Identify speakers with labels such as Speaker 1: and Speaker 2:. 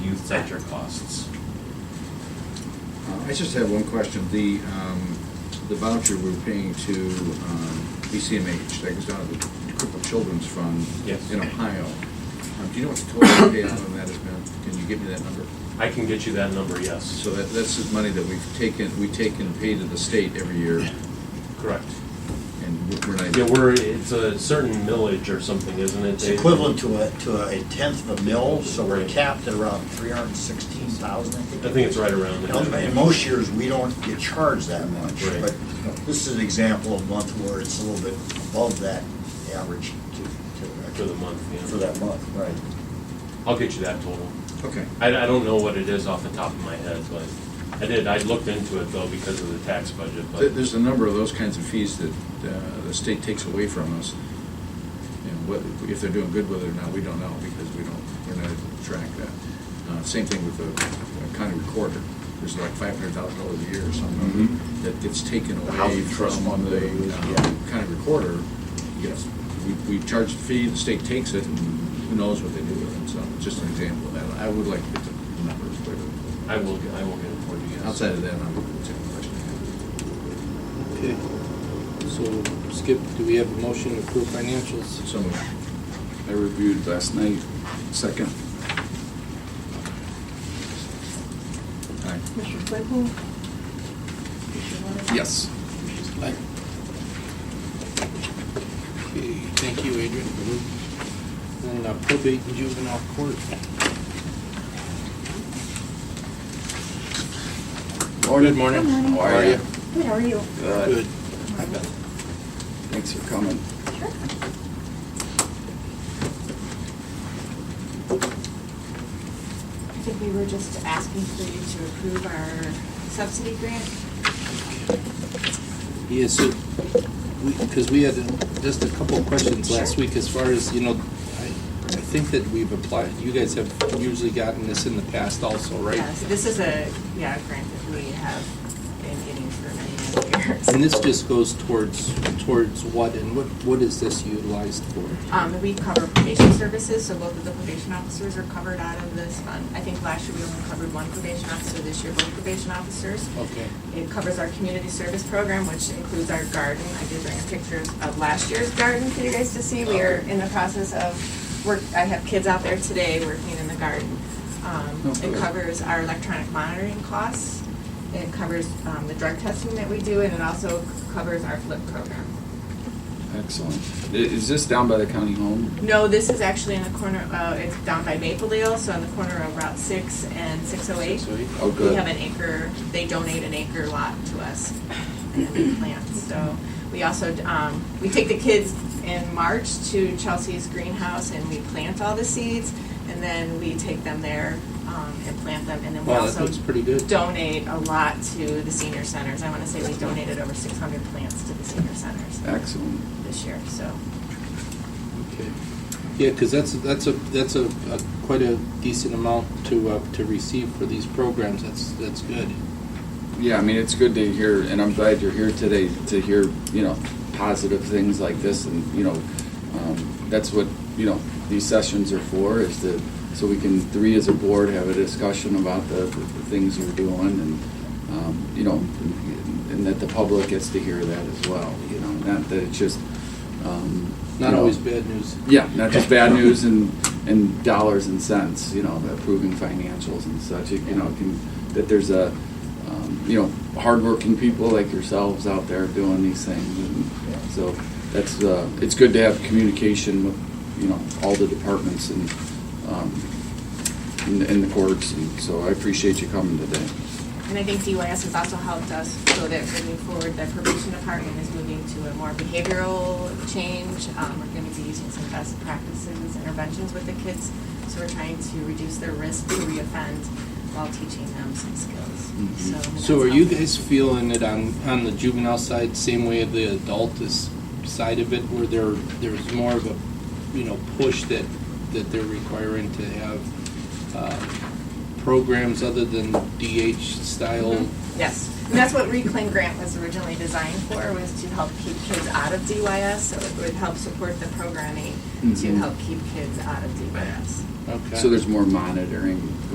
Speaker 1: sector costs.
Speaker 2: I just have one question. The, um, the voucher we're paying to, um, BCMH, that goes down to the Crippled Children's Fund.
Speaker 1: Yes.
Speaker 2: In Ohio. Um, do you know what the total payout on that has been? Can you give me that number?
Speaker 1: I can get you that number, yes.
Speaker 2: So that, that's the money that we've taken, we take and pay to the state every year,
Speaker 1: Correct.
Speaker 2: and we're- we're not.
Speaker 1: Yeah, we're, it's a certain millage or something, isn't it?
Speaker 3: It's
Speaker 1: Dave?
Speaker 3: equivalent to a, to a tenth of a mill, so we're
Speaker 1: Right.
Speaker 3: capped at around three hundred and sixteen thousand, I think.
Speaker 1: I think it's right around
Speaker 3: You know,
Speaker 1: there.
Speaker 3: In most years, we don't get charged that much,
Speaker 1: Right.
Speaker 3: but you know, this is an example of a month where it's a little bit above that average to,
Speaker 1: For
Speaker 3: to,
Speaker 1: the month,
Speaker 3: for
Speaker 1: yeah.
Speaker 3: that month, right?
Speaker 1: I'll get you that total.
Speaker 2: Okay.
Speaker 1: I, I don't know what it is off the top of my head, but I did, I looked into it though because of the tax budget,
Speaker 2: There-
Speaker 1: but
Speaker 2: There's a number of those kinds of fees that uh, the state takes away from us. And what, if they're doing good with it or not, we don't know because we don't, we're not able to track that. Uh, Same thing with the uh, county recorder. There's like five hundred thousand dollars a year or something that gets taken
Speaker 3: Mm-hmm. The
Speaker 2: away
Speaker 3: housing trust
Speaker 2: from
Speaker 3: fund,
Speaker 2: the
Speaker 3: whatever it is,
Speaker 2: uh,
Speaker 3: yeah.
Speaker 2: county recorder. Yes, we, we charge the fee, the state takes it, and who knows what they do with it. So just an example of that. I would like to get the numbers, but
Speaker 1: I will, I will get it for you guys.
Speaker 2: outside of that, I'm, it's a question.
Speaker 4: Okay, so Skip, do we have a motion to approve financials?
Speaker 2: So moved.
Speaker 5: I reviewed last night, second.
Speaker 2: Aye.
Speaker 6: Mr. Claypool? Mr. Leonard?
Speaker 5: Yes.
Speaker 4: Aye. Okay, thank you, Adrian. And uh, probate and juvenile court. Good morning.
Speaker 6: Good morning.
Speaker 4: How are you?
Speaker 6: Good, how are you?
Speaker 4: Good.
Speaker 5: Hi, Beth. Thanks for coming.
Speaker 6: Sure.
Speaker 7: I think we were just asking for you to approve our subsidy grant.
Speaker 4: Yeah, so, because we had just a couple of questions last week as far as, you know, I I think that we've applied, you guys have usually gotten this in the past also, right?
Speaker 7: Yeah, so This is a, yeah, a grant that we have been getting for many, many years.
Speaker 4: And this just goes towards, towards what, and what, what is this utilized for?
Speaker 7: Um, we cover probation services, so both of the probation officers are covered out of this fund. I think last year we only covered one probation officer, this year both probation officers.
Speaker 4: Okay.
Speaker 7: It covers our community service program, which includes our garden. I did bring a picture of last year's garden for you guys to see. We are in the process of work, I have kids out there today working in the garden. Um,
Speaker 5: Oh,
Speaker 7: It
Speaker 5: good.
Speaker 7: covers our electronic monitoring costs. It covers um, the drug testing that we do, and it also covers our flip program.
Speaker 5: Excellent. I- Is this down by the county home?
Speaker 7: No, this is actually in the corner, uh, it's down by Mapledale, so in the corner of Route 6 and 608.
Speaker 4: So,
Speaker 5: Oh,
Speaker 7: We
Speaker 5: good.
Speaker 7: have an acre, they donate an acre lot to us and we plant, so. We also, um, we take the kids in March to Chelsea's greenhouse and we plant all the seeds. And then we take them there, um, and plant them, and then we
Speaker 4: Wow, that
Speaker 7: also
Speaker 4: looks pretty good.
Speaker 7: donate a lot to the senior centers. I wanna say we donated over six hundred plants to the senior centers
Speaker 5: Excellent.
Speaker 7: this year, so.
Speaker 4: Okay. Yeah, because that's, that's a, that's a, a quite a decent amount to, uh, to receive for these programs. That's, that's good.
Speaker 5: Yeah, I mean, it's good to hear, and I'm glad you're here today to hear, you know, positive things like this, and, you know, um, that's what, you know, these sessions are for, is to, so we can, three as a board, have a discussion about the, the things we're doing, and, um, you know, and that the public gets to hear that as well, you know, not that it's just, um.
Speaker 4: Not
Speaker 5: you know,
Speaker 4: always bad news.
Speaker 5: Yeah, not just bad news and, and dollars and cents, you know, approving financials and such, you know, can, that there's a, um, you know, hardworking people like yourselves out there doing these things. and So that's, uh, it's good to have communication with, you know, all the departments and, um, and- and the courts, and so I appreciate you coming today.
Speaker 7: And I think DYS has also helped us so that moving forward, the probation department is moving to a more behavioral change. Um, we're gonna be using some best practices, interventions with the kids. So we're trying to reduce their risk to reoffend while teaching them some
Speaker 5: Mhm.
Speaker 7: skills. So.
Speaker 4: So are
Speaker 7: that's
Speaker 4: you
Speaker 7: helpful.
Speaker 4: guys feeling it on, on the juvenile side, same way of the adult is side of it, where there, there's more of a, you know, push that, that they're requiring to have, uh, programs other than DH style?
Speaker 7: Mm-hmm. Yes, and that's what Reclaim Grant was originally designed for, was to help keep kids out of DYS. So it would help support the programming to
Speaker 4: Mm-hmm.
Speaker 5: Mhm.
Speaker 7: help keep kids out of DYS.
Speaker 4: Okay.
Speaker 5: So there's more monitoring